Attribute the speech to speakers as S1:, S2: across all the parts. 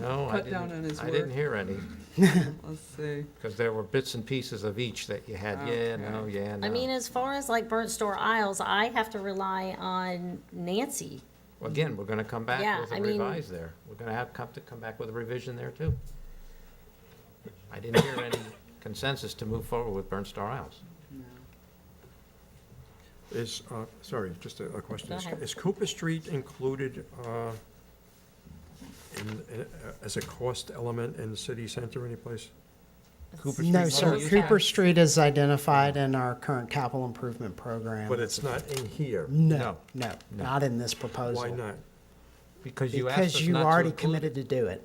S1: No, I
S2: Cut down on
S1: didn't,
S2: his
S1: I didn't
S2: work.
S1: hear any,
S2: Let's see.
S1: because there were bits and pieces of each that you had, yeah, no,
S2: Okay.
S1: yeah, no.
S3: I mean, um, as far as like Burnt Store Isles, I have to rely on Nancy.
S1: Well, Again, we're gonna come back
S3: Yeah,
S1: with a
S3: I mean-
S1: revise there. We're gonna have, come to, come back with a revision there too. I didn't hear any consensus to move forward with Burnt Star Isles.
S4: Is, uh, sorry, just a a question.
S3: Go
S4: Is-
S3: ahead.
S4: Is Cooper Street included uh, in- in- uh, as a cost element in the city center anyplace?
S1: Cooper
S5: No,
S1: Street's
S5: sir.
S1: not used.
S5: Cooper Street is identified in our current capital improvement program.
S4: But it's not in here?
S5: No,
S1: No,
S5: no, not in this proposal.
S4: Why not?
S1: Because you asked
S5: Because
S1: us
S5: you
S1: not to
S5: already
S1: include it.
S5: committed to do it.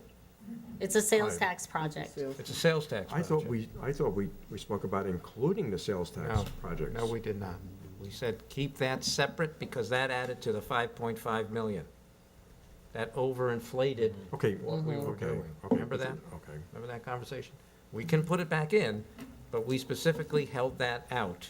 S3: It's a sales
S4: Right.
S3: tax project.
S1: It's a sales tax
S4: I thought
S1: project.
S4: we, I thought we, we spoke about including the sales tax
S1: No,
S4: projects.
S1: No, we did not. We said keep that separate because that added to the five point five million. That overinflated,
S4: Okay, okay, okay.
S1: doing. Remember that?
S4: Okay.
S1: remember that conversation? We can put it back in, but we specifically held that out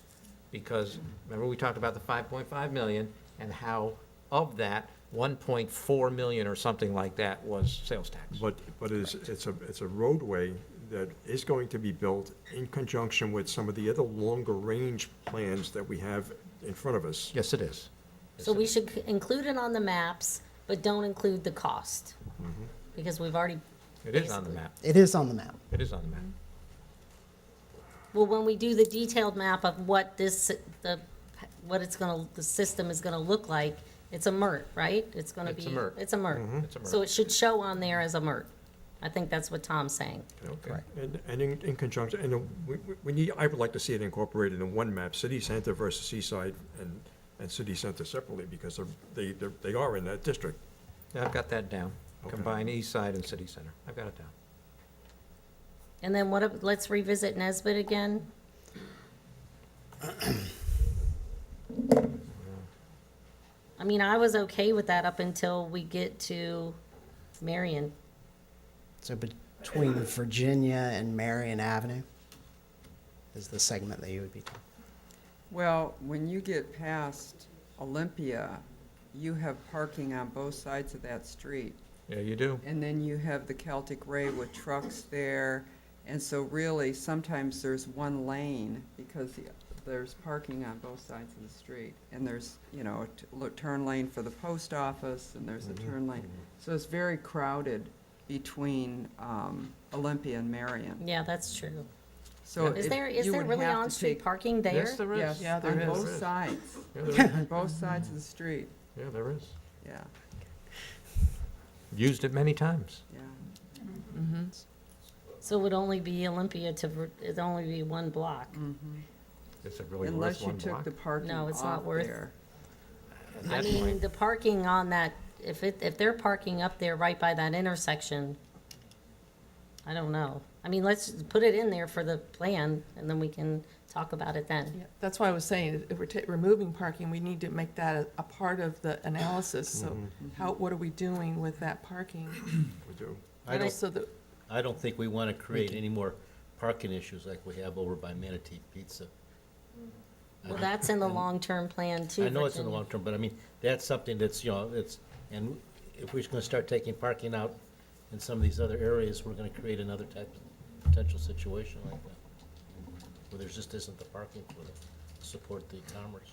S1: because, remember, we talked about the five point five million and how of that, one point four million or something like that was sales tax.
S4: But, but it's, it's a, it's a roadway that is going to be built in conjunction with some of the other longer-range plans that we have in front of us.
S1: Yes, it is.
S3: So we should c- include it on the maps, but don't include the cost.
S1: Mm-hmm.
S3: Because we've already,
S1: It is on the map.
S5: It is on the map.
S1: It is on the map.
S3: well, when we do the detailed map of what this, the, what it's gonna, the system is gonna look like, it's a MRT, right? It's gonna be.
S1: It's a MRT.
S3: It's a MRT.
S1: It's a
S3: So
S1: merge.
S3: it should show on there as a MRT. I think that's what Tom's saying.
S1: Okay.
S4: And, and in, in conjunction, and uh, we, we- we need, I would like to see it incorporated in one map, city center versus seaside and, and city center separately, because they're, they, they're- they are in that district.
S1: Yeah, I've got that down.
S4: Okay.
S1: Combine east side and city center. I've got it down.
S3: And then what, if- let's revisit Nesbit again. I mean, I was okay with that up until we get to Marion.
S5: So between Virginia and Marion Avenue is the segment that you would be talking.
S2: Well, when you get past Olympia, you have parking on both sides of that street.
S1: Yeah, you do.
S2: And then you have the Celtic Ray with trucks there. And so really, sometimes there's one lane because the- there's parking on both sides of the street. And there's, you know, a t- lo- turn lane for the post office and there's a turn lane. So it's very crowded between um, Olympia and Marion.
S3: Yeah, that's true.
S2: So
S3: Is
S2: it-
S3: there, is
S2: you
S3: there
S2: would
S3: really
S2: have to
S3: on-street
S2: take-
S3: parking there?
S1: Yes, there is.
S2: Yes,
S1: Yeah,
S2: on
S1: there
S2: both
S1: is. Yeah,
S2: sides,
S1: there is.
S2: on both sides of the street,
S1: Yeah, there is.
S2: yeah,
S1: Used it many times.
S2: yeah.
S3: So it would only be Olympia to, Vir- it'd only be one block.
S1: Is it really worth
S2: Unless you
S1: one
S2: took
S1: block?
S2: the parking
S3: No, it's not
S2: off
S3: worth-
S2: there.
S1: At
S3: I
S1: that
S3: mean,
S1: point-
S3: the parking on that, if it, if they're parking up there right by that intersection, I don't know. I mean, let's put it in there for the plan and then we can talk about it then.
S6: Yeah, that's why I was saying, if we're ta- removing parking, we need to make that a, a part of the analysis, so how, what are we doing with that parking?
S4: We do.
S7: I don't,
S6: So that,
S7: I don't think we want to create any more parking issues like we have over by Manatee Pizza.
S3: Well, that's in the long-term plan too.
S7: I know it's in the
S3: Virginia.
S7: long term, but I mean, that's something that's, you know, it's, and if we're just going to start taking parking out in some of these other areas, we're going to create another type of potential situation like that. Where there's just isn't the parking for it, to support the commerce.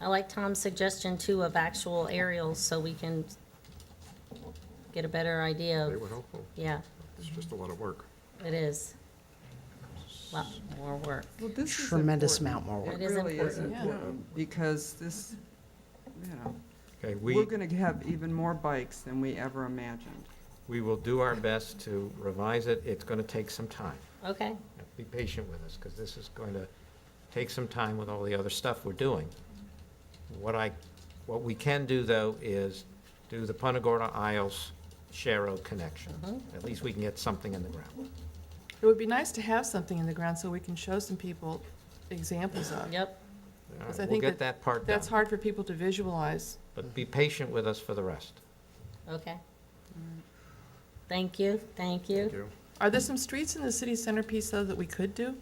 S3: I like Tom's suggestion too of actual aerials so we can get a better idea
S4: They
S3: of,
S4: were helpful.
S3: yeah,
S4: It's just a lot of work.
S3: it is. Lot more work.
S2: Well, this is
S5: Tremendous
S2: important.
S5: amount more work.
S3: It is
S2: really is
S3: important.
S6: Yeah.
S2: important, because this, you know,
S1: Okay,
S2: we're
S1: we,
S2: gonna have even more bikes than we ever imagined.
S1: we will do our best to revise it. It's going to take some time.
S3: Okay,
S1: Be patient with us, because this is going to take some time with all the other stuff we're doing. What I, what we can do, though, is do the Punta Gorda Isles Sharrow connection.
S6: Mm-hmm.
S1: At least we can get something in the ground.
S6: it would be nice to have something in the ground so we can show some people examples of.
S3: yep,
S1: All
S6: Because
S1: right,
S6: I
S1: We'll
S6: think
S1: get
S6: that-
S1: that part done.
S6: That's hard for people to visualize.
S1: But be patient with us for the rest.
S3: okay. Thank you, thank you.
S4: Thank you.
S6: Are there some streets in the city centerpiece though that we could do?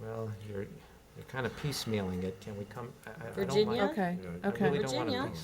S1: Well, you're, you're kind of piecemealing it. Can we come, I- I, I don't mind.
S3: Virginia?
S6: Okay,
S4: Yeah, I
S1: I
S6: okay.
S1: really don't want to
S3: Virginia?
S1: piece.